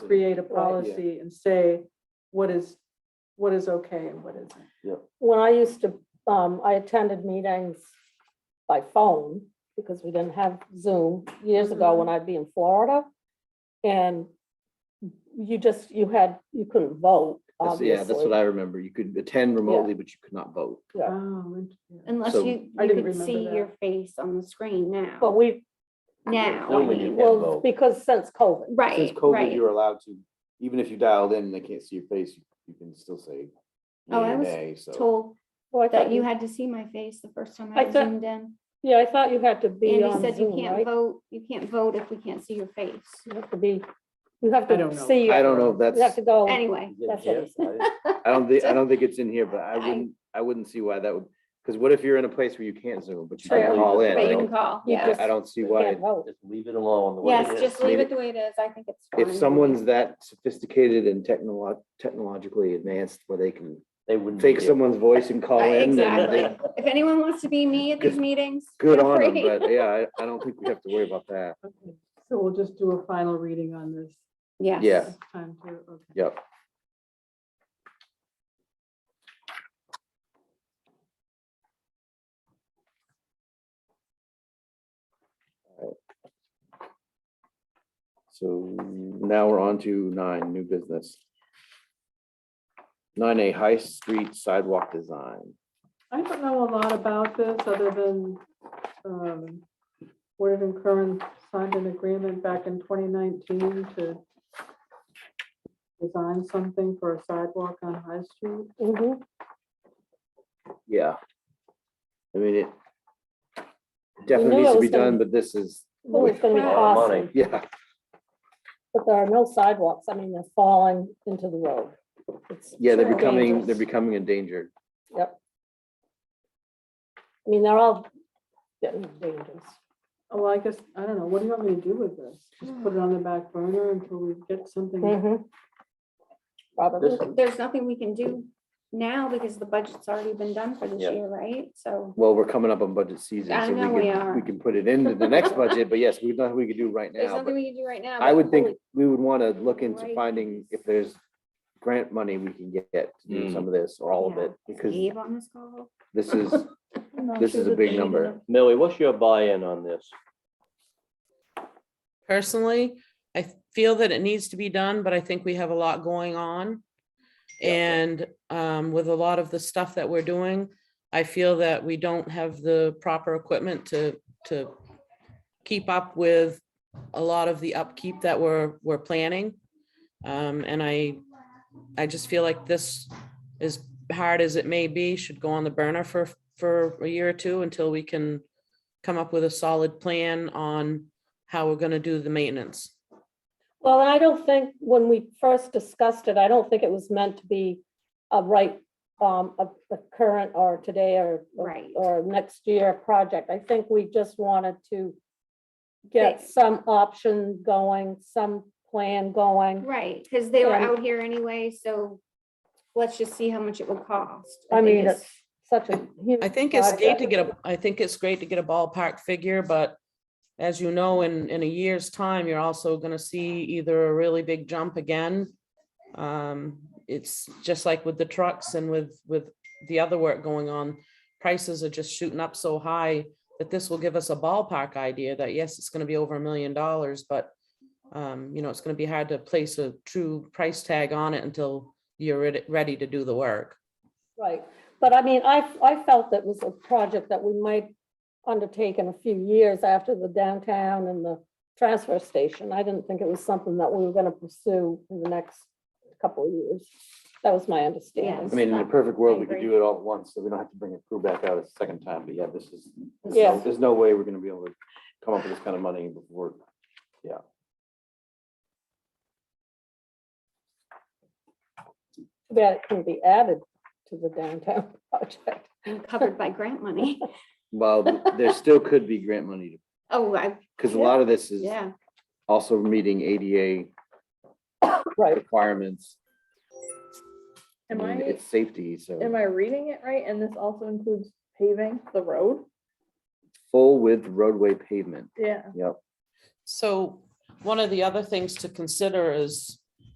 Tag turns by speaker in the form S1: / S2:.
S1: create a
S2: Right.
S1: policy and say what is, what is okay and what isn't.
S2: when I used to, um, I attended meetings by phone because we didn't have Zoom years
S3: Mm-hmm.
S2: ago when I'd be in Florida. And you just, you had, you couldn't vote,
S4: That's-
S2: obviously.
S4: Yeah, that's what I remember. You could attend remotely, but you could not vote.
S2: Yeah.
S1: Oh, interesting.
S3: Unless
S4: So-
S3: you,
S1: I
S3: you
S1: didn't
S3: could
S1: remember
S3: see
S1: that.
S3: your face on the screen
S2: But
S3: now,
S2: we,
S3: now,
S4: Now we
S3: I
S4: do.
S3: mean,
S4: can't
S2: well,
S4: vote.
S2: because since COVID,
S4: Since
S3: right,
S4: COVID,
S3: right.
S4: you're allowed to, even if you dialed in and they can't see your face, you- you can still say
S3: Oh, I
S4: yea or
S3: was
S4: nay, so.
S3: Told
S2: well, I
S3: that
S2: thought
S3: you
S2: you,
S3: had to see my face the first time
S2: I
S3: I
S2: thought-
S3: zoomed in.
S2: yeah, I thought you had to be
S3: Andy
S2: on
S3: said you
S2: Zoom,
S3: can't
S2: right?
S3: vote, you can't vote if we can't see your face.
S2: You have to be, you have
S1: I don't
S2: to
S1: know.
S2: see.
S4: I don't know if that's-
S2: You have to go.
S3: Anyway,
S2: That's what it
S4: I don't think, I don't think it's in here, but I
S3: I-
S4: wouldn't, I wouldn't see why that would, because what if you're in a place where you can't Zoom, but you
S2: True.
S4: can call in? I
S3: but you can
S4: don't-
S3: call,
S2: You
S3: yeah.
S2: just-
S4: I don't see
S2: You
S4: why,
S2: can't vote.
S5: Just leave it alone. the way it
S3: Yes,
S5: is.
S3: just leave
S4: Maybe-
S3: it the way it is. I think it's fine.
S4: if someone's that sophisticated and technolo- technologically advanced where they can
S5: They wouldn't.
S4: fake
S5: be here.
S4: someone's voice and call
S3: Right,
S4: in, then
S3: Exactly.
S4: they-
S3: If anyone wants to be me at these meetings.
S4: good
S3: feel
S4: on them,
S3: free.
S4: but yeah, I, I don't think we have to worry about that.
S1: Okay, So we'll just do a final reading on this
S3: Yes.
S4: Yeah.
S1: this time too, okay.
S4: Yep. Alright. So now we're on to nine, new business. Nine A, High Street Sidewalk Design.
S1: I don't know a lot about this other than um, Word and Curran signed an agreement back in twenty nineteen to design something for a sidewalk on High Street.
S2: Mhm.
S4: Yeah. I mean, it
S2: knew
S4: definitely needs
S2: it
S4: to
S2: was
S4: be
S2: gonna-
S4: done, but this is,
S2: Well, It's gonna be
S5: A lot of
S2: awesome.
S5: money.
S4: yeah,
S2: But there are no sidewalks. I mean, they're falling into the road. It's
S4: yeah, they're
S2: super
S4: becoming, they're
S2: dangerous.
S4: becoming endangered.
S2: I mean, they're all getting dangerous.
S1: Oh, well, I guess, I don't know, what do you want me to do with this? Just put it on the back burner until we get something?
S3: Mm-hmm.
S2: Probably.
S3: There's nothing we can do now because the budget's already been done for this
S5: Yeah.
S3: year, right? So,
S4: Well, we're coming up on budget season,
S3: I
S4: so
S3: know
S4: we
S3: we
S4: can, we
S3: are.
S4: can put it into the next budget, but yes, we know we could do right
S3: there's
S4: now.
S3: nothing
S4: but
S3: we can do right now.
S4: I
S3: but
S4: would think
S3: holy-
S4: we would want to look into
S3: Right.
S4: finding if there's grant money we can get to do some of this or all of
S3: Yeah.
S4: it, because
S3: Dave on this call?
S4: this is, this is a big number.
S5: Millie, what's your buy-in on this?
S6: personally. I feel that it needs to be done, but I think we have a lot going on. And um, with a lot of the stuff that we're doing, I feel that we don't have the proper equipment to, to keep up with a lot of the upkeep that we're, we're planning. Um, and I, I just feel like this, as hard as it may be, should go on the burner for, for a year or two until we can come up with a solid plan on how we're gonna do the maintenance.
S2: Well, and I don't think, when we first discussed it, I don't think it was meant to be a right, um, a, a current or today or, or-
S3: Right.
S2: or next year project. I think we just wanted to
S3: Right.
S2: get some option going, some plan going.
S3: Right, because they were
S2: And-
S3: out here anyway, so let's just see how much it would cost.
S2: I
S3: think
S2: mean, it's such a huge.
S6: I think it's great to
S2: project.
S6: get a, I think it's great to get a ballpark figure, but as you know, in, in a year's time, you're also gonna see either a really big jump again. Um, it's just like with the trucks and with, with the other work going on, prices are just shooting up so high that this will give us a ballpark idea that yes, it's gonna be over a million dollars, but um, you know, it's gonna be hard to place a true price tag on it until you're ready, ready to do the work.
S2: Right, but I mean, I, I felt that was a project that we might undertake in a few years after the downtown and the transfer station. I didn't think it was something that we were gonna pursue in the next couple of years. That was my
S4: I
S2: understanding.
S4: mean, in a perfect world, we could
S3: agree.
S4: do it all at once, so we don't have to bring a crew back out a second time, but yeah, this is, there's
S2: Yeah.
S4: no- there's no way we're gonna be able to come up with this kind of money before, yeah.
S2: Too bad it couldn't be added to the downtown project.
S3: And covered by grant money.
S4: Well, there still could be grant money,
S3: Oh, I,
S4: because a lot of this is
S3: yeah,
S4: also meeting ADA
S2: Right,
S4: requirements. I
S7: Am
S4: mean,
S7: I,
S4: It's safety, so.
S7: am I reading it right? And this also includes paving the road?
S4: Full width roadway pavement,
S7: Yeah.
S4: yep.
S6: So one of the other things to consider is